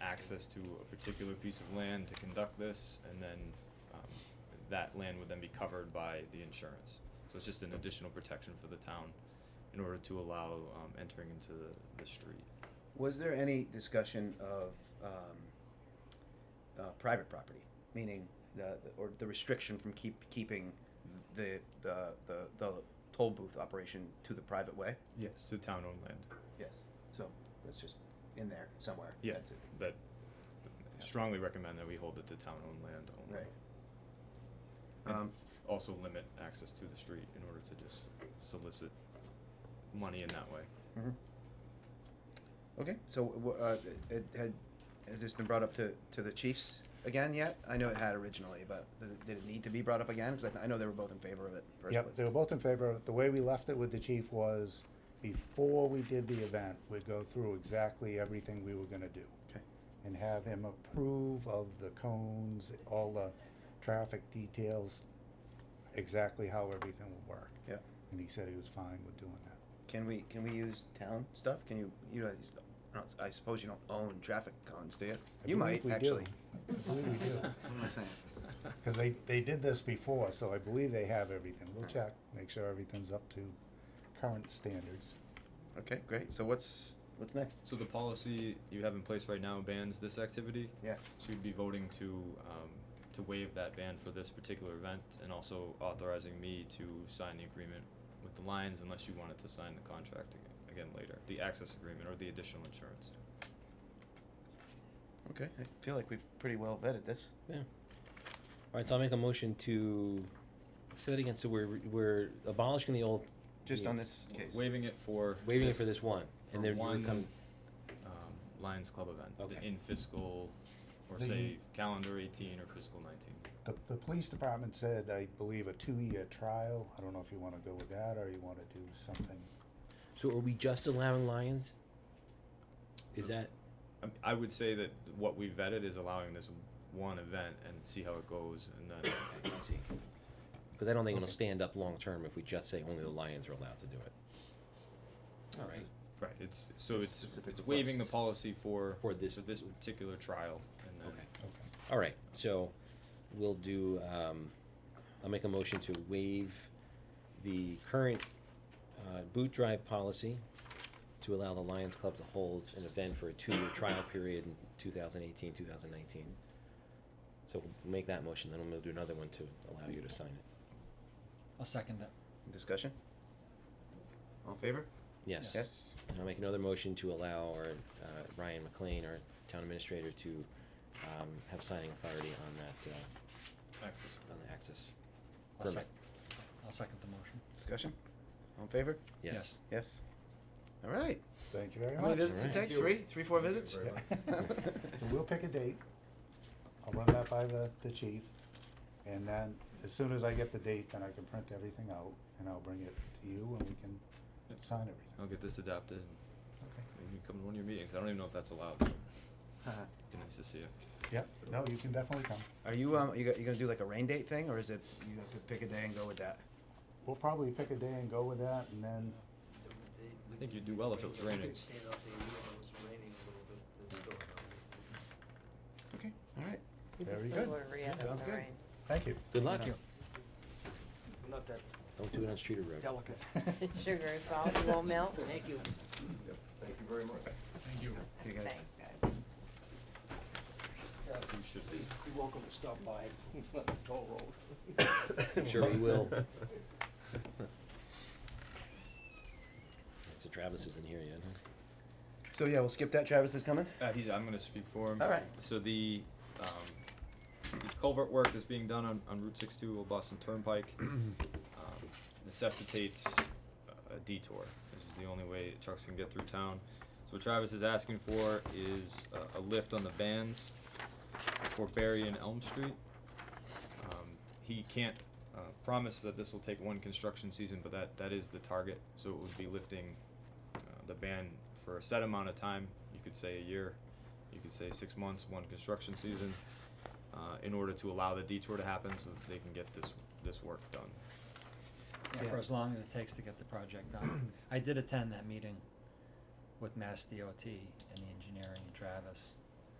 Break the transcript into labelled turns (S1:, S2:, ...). S1: access to a particular piece of land to conduct this, and then, um, that land would then be covered by the insurance. So it's just an additional protection for the town in order to allow, um, entering into the, the street.
S2: Was there any discussion of um, uh, private property, meaning the, the- or the restriction from keep keeping the the the, the toll booth operation to the private way?
S1: Yes. To town-owned land.
S2: Yes. So that's just in there somewhere.
S1: Yeah,
S2: That's it.
S1: that strongly recommend that we hold it to town-owned land only.
S2: Right.
S1: And
S2: Um,
S1: Also limit access to the street in order to just solicit money in that way.
S2: Mhm. Mm-hmm. Okay. So wh- uh, it, had has this been brought up to, to the chiefs again yet? I know it had originally, but th- did it need to be brought up again? Because I, I know they were both in favor of it. in the First
S3: Yep,
S2: place.
S3: they were both in favor. of it. The way we left it with the chief was, before we did the event, we'd go through exactly everything we were gonna do.
S2: Okay.
S3: And have him approve of the cones, all the traffic details, exactly how everything would work.
S2: Yep.
S3: And he said he was fine with doing that.
S2: Can we can we use town stuff? Can you you guys? I don't- I suppose you don't own traffic cones, do you?
S3: I
S2: You might
S3: believe we do.
S2: actually.
S3: I believe we do.
S2: What am I saying?
S3: Cause they, they did this before, so I believe they have everything. We'll
S2: Hmm.
S3: check, make sure everything's up to current standards.
S2: Okay, great. So what's what's next?
S1: So the policy you have in place right now bans this activity?
S2: Yeah.
S1: So you'd be voting to, um, to waive that ban for this particular event and also authorizing me to sign the agreement with the Lions unless you wanted to sign the contract ag- again later, the access agreement or the additional insurance.
S2: Okay, I feel like we've pretty well vetted this.
S4: Yeah. All right, so I'll make a motion to, say that again, so we're, we're abolishing the old.
S2: Just on
S4: the-
S2: this case.
S1: Waiving it for.
S4: Waiving it
S1: this-
S4: for this one,
S1: for
S4: and then
S1: one,
S4: we come,
S1: um, Lions Club event, the-
S4: Okay.
S1: in fiscal, or
S3: The-
S1: say calendar eighteen or fiscal nineteen.
S3: The, the police department said, I believe, a two-year trial. I don't know if you wanna go with that or you wanna do something.
S4: so are we just allowing lions? Is that,
S1: Um, I, I would say that what we vetted is allowing this one event and see how it goes, and then,
S4: let's see, cause I don't think it'll stand up long-term if we just say only the lions are allowed to do it.
S2: Oh,
S4: All right.
S2: there's-
S1: right, it's, so
S2: The
S1: it's,
S2: specific
S1: it's waiving the
S2: request.
S1: policy for.
S4: For this-
S1: this particular trial, and then.
S4: Okay.
S3: Okay.
S4: All right, so we'll do, um, I'll make a motion to waive the current, uh, boot drive policy to allow the Lions Club to hold an event for a two-year trial period in 2018, 2019. So we'll make that motion, then we'll do another one to allow you to sign it.
S5: I'll second that.
S2: Discussion? All in favor?
S4: Yes.
S2: Yes.
S4: And I'll make another motion to allow our, uh, Ryan McLean, our town administrator, to, um, have signing authority on that, uh,
S1: Access.
S4: on the access
S5: I'll
S4: permit.
S5: sec- I'll second the motion.
S2: Discussion? All in favor?
S4: Yes.
S2: Yes. All right.
S3: Thank you very
S2: How
S3: much.
S2: many visits to
S4: Alright.
S2: take?
S6: Thank you.
S2: Three, three, four
S6: Thank you
S2: visits?
S6: very much.
S3: And We'll pick a date. I'll run that by the, the chief. And then as soon as I get the date, then I can print everything out and I'll bring it to you and we can
S1: Yep.
S3: sign everything.
S1: I'll get this adapted, and
S3: Okay.
S1: maybe you come to one of your meetings, I don't even know if that's allowed, but
S2: Uh-huh.
S1: be nice to see you.
S3: Yep, no, you can definitely come.
S2: Are you, um, you go- you gonna do like a rain date thing, or is it, you have to pick a day and go with that?
S3: We'll probably pick a day and go with that and then,
S1: I think you'd do well if it was
S6: You
S1: raining.
S6: could stand out there, even if it was raining a little bit, it's still hot.
S2: Okay, all right.
S3: Very
S7: So
S3: good.
S7: we're re-
S3: Yeah,
S7: asking
S2: sounds
S7: the
S2: good.
S7: rain.
S3: thank you.
S4: Good luck.
S5: Thank you.
S6: Not that
S4: Don't do it on Streeter Road.
S6: delicate.
S7: Sugar is all, it won't melt.
S6: Thank you. Thank you very much. Thank you.
S2: You guys-
S7: Thanks, guys.
S1: You should be.
S6: You're welcome to stop by, the toll road.
S4: I'm sure we will. So Travis isn't here yet, huh?
S2: So yeah, we'll skip that. Travis is coming.
S1: Uh, he's, I'm gonna speak for him.
S2: All right.
S1: So the, um, the culvert work that's being done on, on Route six-two Old Boston Turnpike, um, necessitates a detour. This is the only way trucks can get through town. So what Travis is asking for is a, a lift on the bands for Berry and Elm Street. Um, he can't, uh, promise that this will take one construction season, but that, that is the target, so it would be lifting, uh, the ban for a set amount of time, you could say a year, you could say six months, one construction season, uh, in order to allow the detour to happen so that they can get this, this work done.
S5: Yeah, for as long as it takes to get the project done. I did attend that meeting with Mass DOT and the engineering and Travis.